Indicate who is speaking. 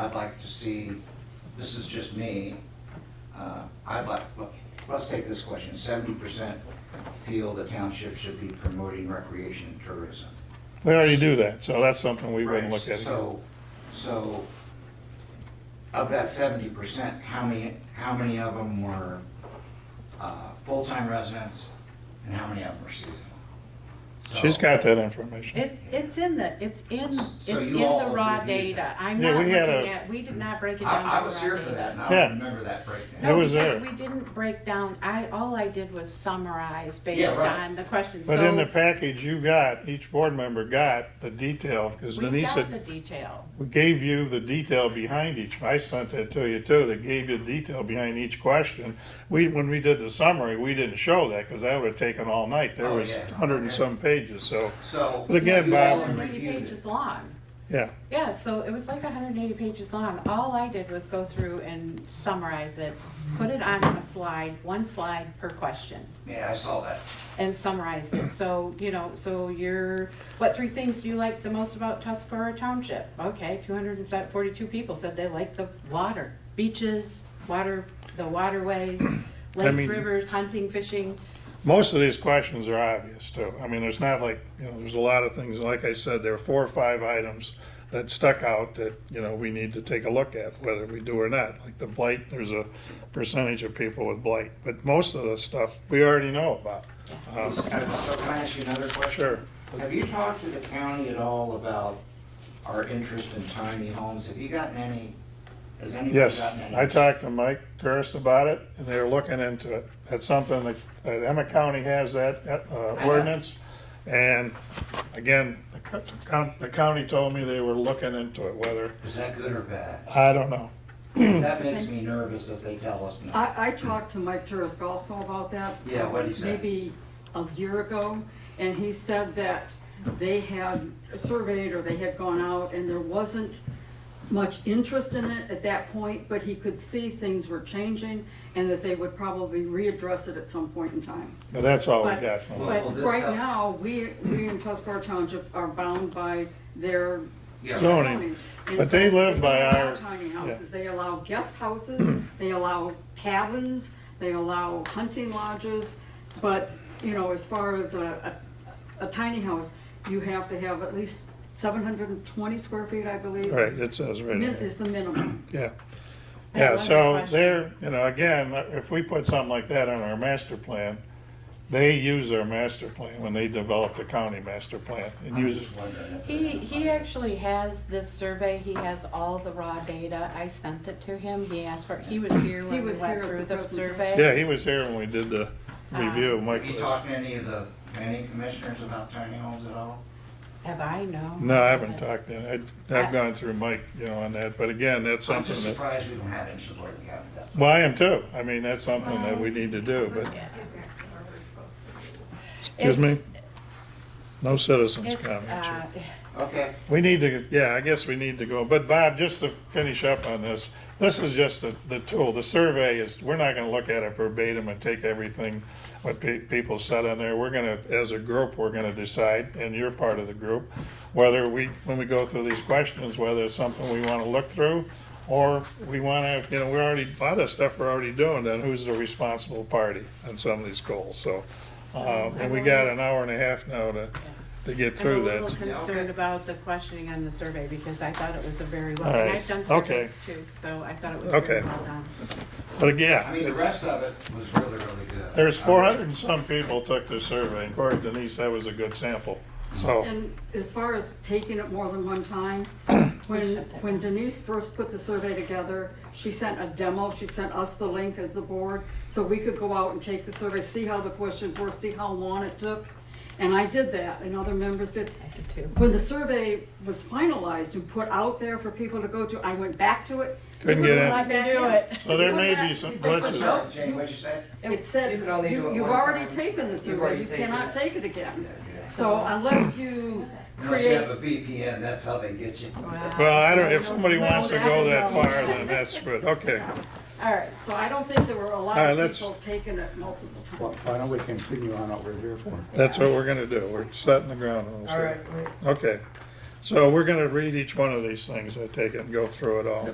Speaker 1: I'd like to see, this is just me, uh, I'd like, look, let's take this question, seventy percent feel the township should be promoting recreation and tourism.
Speaker 2: We already do that, so that's something we wouldn't look at. again.
Speaker 1: So, so, of that seventy percent, how many, how many of them were, uh, full-time residents, and how many of them were seasonal? So-
Speaker 2: She's got that information.
Speaker 3: It, it's in the, it's in, it's
Speaker 1: So
Speaker 3: in
Speaker 1: you all
Speaker 3: the raw
Speaker 1: reviewed
Speaker 3: data. I'm
Speaker 2: Yeah,
Speaker 3: not
Speaker 2: we
Speaker 3: looking
Speaker 2: had a-
Speaker 3: at, we did not break it down.
Speaker 1: I, I
Speaker 3: to
Speaker 1: was
Speaker 3: raw
Speaker 1: here for
Speaker 3: data.
Speaker 1: that, and I
Speaker 2: Yeah.
Speaker 1: don't remember that breakdown.
Speaker 2: It
Speaker 3: No,
Speaker 2: was there.
Speaker 3: because we didn't break down, I, all I did was summarize
Speaker 1: Yeah,
Speaker 3: based
Speaker 1: right.
Speaker 3: on the questions.
Speaker 2: But in
Speaker 3: So
Speaker 2: the package you got, each board member got the detail, because
Speaker 3: We
Speaker 2: Denise
Speaker 3: got the
Speaker 2: had,
Speaker 3: detail.
Speaker 2: we gave you the detail behind each. I sent that to you too, that gave you the detail behind each question. We, when we did the summary, we didn't show that, because that would have taken all night. There
Speaker 1: Oh,
Speaker 2: was
Speaker 1: yeah.
Speaker 2: hundred and some pages, so,
Speaker 1: So.
Speaker 2: But again,
Speaker 1: you all
Speaker 2: Bob-
Speaker 3: It was
Speaker 1: reviewed
Speaker 3: 180
Speaker 1: it.
Speaker 3: pages long.
Speaker 2: yeah.
Speaker 3: Yeah, so it was like 180 pages long. All I did was go through and summarize it, put it on a slide, one slide per question.
Speaker 1: Yeah, I saw that.
Speaker 3: and summarize it. So, you know, so you're, what three things do you like the most about Tuscarora Township? Okay, two hundred and forty-two people said they like the water, beaches, water, the waterways, lakes,
Speaker 2: mean-
Speaker 3: rivers, hunting, fishing.
Speaker 2: Most of these questions are obvious too. I mean, there's not like, you know, there's a lot of things, like I said, there are four or five items that stuck out that, you know, we need to take a look at, whether we do or not. Like the blight, there's a percentage of people with blight, but most of the stuff we already know about. Um,
Speaker 1: So can I ask you another question?
Speaker 2: Sure.
Speaker 1: Have you talked to the county at all about our interest in tiny homes? Have you gotten any, has anybody
Speaker 2: Yes,
Speaker 1: gotten any?
Speaker 2: I talked to Mike Turris about it, and they're looking into it. That's something that, that Emmett County has that uh,
Speaker 1: know.
Speaker 2: ordinance. And again, the co- the coun- the county told me they were looking into it, whether,
Speaker 1: Is that good or bad?
Speaker 2: I don't know.
Speaker 1: That makes me nervous if they tell us
Speaker 3: Uh,
Speaker 1: no.
Speaker 4: I, I talked to Mike Turisk also about that.
Speaker 1: Yeah, what'd he say?
Speaker 4: Maybe a year ago, and he said that they had surveyed or they had gone out and there wasn't much interest in it at that point, but he could see things were changing and that they would probably readdress it at some point in time.
Speaker 2: But that's all we
Speaker 4: But,
Speaker 2: got from them.
Speaker 1: Well, well,
Speaker 4: but
Speaker 1: this
Speaker 4: right
Speaker 1: help-
Speaker 4: now, we, we in Tuscarora Township are bound by their
Speaker 1: Yeah.
Speaker 2: Zoning.
Speaker 4: And
Speaker 2: But
Speaker 4: so
Speaker 2: they live by
Speaker 4: don't allow
Speaker 2: our-
Speaker 4: Tiny
Speaker 2: yeah.
Speaker 4: houses, they allow guest houses, they allow cabins, they allow hunting lodges, but, you know, as far as a, a, a tiny house, you have to have at least seven hundred and twenty square feet, I believe.
Speaker 2: Right, it says right in
Speaker 4: Min,
Speaker 2: there.
Speaker 4: is the minimum.
Speaker 2: Yeah.
Speaker 3: I
Speaker 2: Yeah,
Speaker 3: love that
Speaker 2: so
Speaker 3: question.
Speaker 2: they're, you know, again, if we put something like that on our master plan, they use our master plan when they develop the county master plan and
Speaker 1: I'm
Speaker 2: use,
Speaker 1: just wondering if.
Speaker 3: He, he actually has this survey, he has all the raw data. I sent it to him, he asked for, he was here
Speaker 4: He
Speaker 3: when we
Speaker 4: was
Speaker 3: went
Speaker 4: here at
Speaker 3: through
Speaker 4: the
Speaker 3: the
Speaker 4: presentation.
Speaker 3: survey.
Speaker 2: yeah, he was here when we did the review, Mike
Speaker 1: Have you
Speaker 2: was-
Speaker 1: talked to any of the planning commissioners about tiny homes at all?
Speaker 3: Have I, no?
Speaker 2: No, I haven't talked to him. I- I've gone through Mike, you know, on that, but again, that's
Speaker 1: I'm just
Speaker 2: something that,
Speaker 1: surprised we don't have any support in the county, that's. all.
Speaker 2: well, I am too. I mean, that's something that we need to do, but, excuse me?
Speaker 3: It's-
Speaker 2: No citizens
Speaker 3: It's,
Speaker 2: comments. here.
Speaker 3: uh,
Speaker 1: Okay,
Speaker 2: We need to, yeah, I guess we need to go, but Bob, just to finish up on this, this is just the, the tool, the survey is, we're not gonna look at it verbatim and take everything, what pe- people said on there, we're gonna, as a group, we're gonna decide, and you're part of the group, whether we, when we go through these questions, whether it's something we wanna look through, or we wanna, you know, we already, a lot of stuff we're already doing, then who's the responsible party on some of these goals, so. Uh, and we got an hour and a half now to, to get through that.
Speaker 3: I'm a little
Speaker 1: Yeah, okay.
Speaker 3: concerned about the questioning on the survey because I thought it was a very well,
Speaker 2: All
Speaker 3: and
Speaker 2: right.
Speaker 3: I've done
Speaker 2: Okay.
Speaker 3: surveys too, so I thought it was very
Speaker 2: Okay.
Speaker 3: well done.
Speaker 2: But again.
Speaker 1: I mean, the rest of it was really, really good.
Speaker 2: There's
Speaker 1: I
Speaker 2: four
Speaker 1: really-
Speaker 2: hundred and some people took the survey, and according to Denise, that was a good sample, so.
Speaker 4: And as far as taking it more than one time, when, when Denise first put the survey together, she sent a demo, she sent us the link as the board, so we could go out and take the survey, see how the questions were, see how long it took. And I did that, and other members did.
Speaker 3: I did too.
Speaker 4: When the survey was finalized and put out there for people to go to, I went back to it.
Speaker 2: Couldn't get in.
Speaker 4: Let me do
Speaker 3: it.
Speaker 2: So there may
Speaker 4: Wouldn't
Speaker 2: be
Speaker 4: that-
Speaker 2: some
Speaker 4: they said,
Speaker 2: glitches.
Speaker 4: "Nope,
Speaker 1: Sorry, Jane, what'd you say?
Speaker 4: it said,
Speaker 5: You can only do
Speaker 4: you-
Speaker 5: it
Speaker 4: you've
Speaker 5: one
Speaker 4: already
Speaker 5: time.
Speaker 4: taken the
Speaker 5: You've
Speaker 4: survey,
Speaker 5: already
Speaker 4: you
Speaker 5: taken
Speaker 4: cannot
Speaker 5: it.
Speaker 4: take it again.
Speaker 1: yeah.
Speaker 4: So unless you
Speaker 1: Unless you
Speaker 4: create,
Speaker 1: have a VPN, that's how they get you.
Speaker 2: Well, I don't, if somebody wants to go that far, then that's good, okay.
Speaker 3: All right,
Speaker 4: so I don't think there were a lot
Speaker 2: All right,
Speaker 4: of
Speaker 2: let's-
Speaker 4: people taking it multiple
Speaker 6: Why
Speaker 4: times.
Speaker 6: why don't we continue on what we're here for?
Speaker 2: That's what we're gonna do, we're setting the ground rules
Speaker 5: All
Speaker 2: here.
Speaker 5: right, wait.
Speaker 2: Okay, So we're gonna read each one of these things, I take it, and go through it all.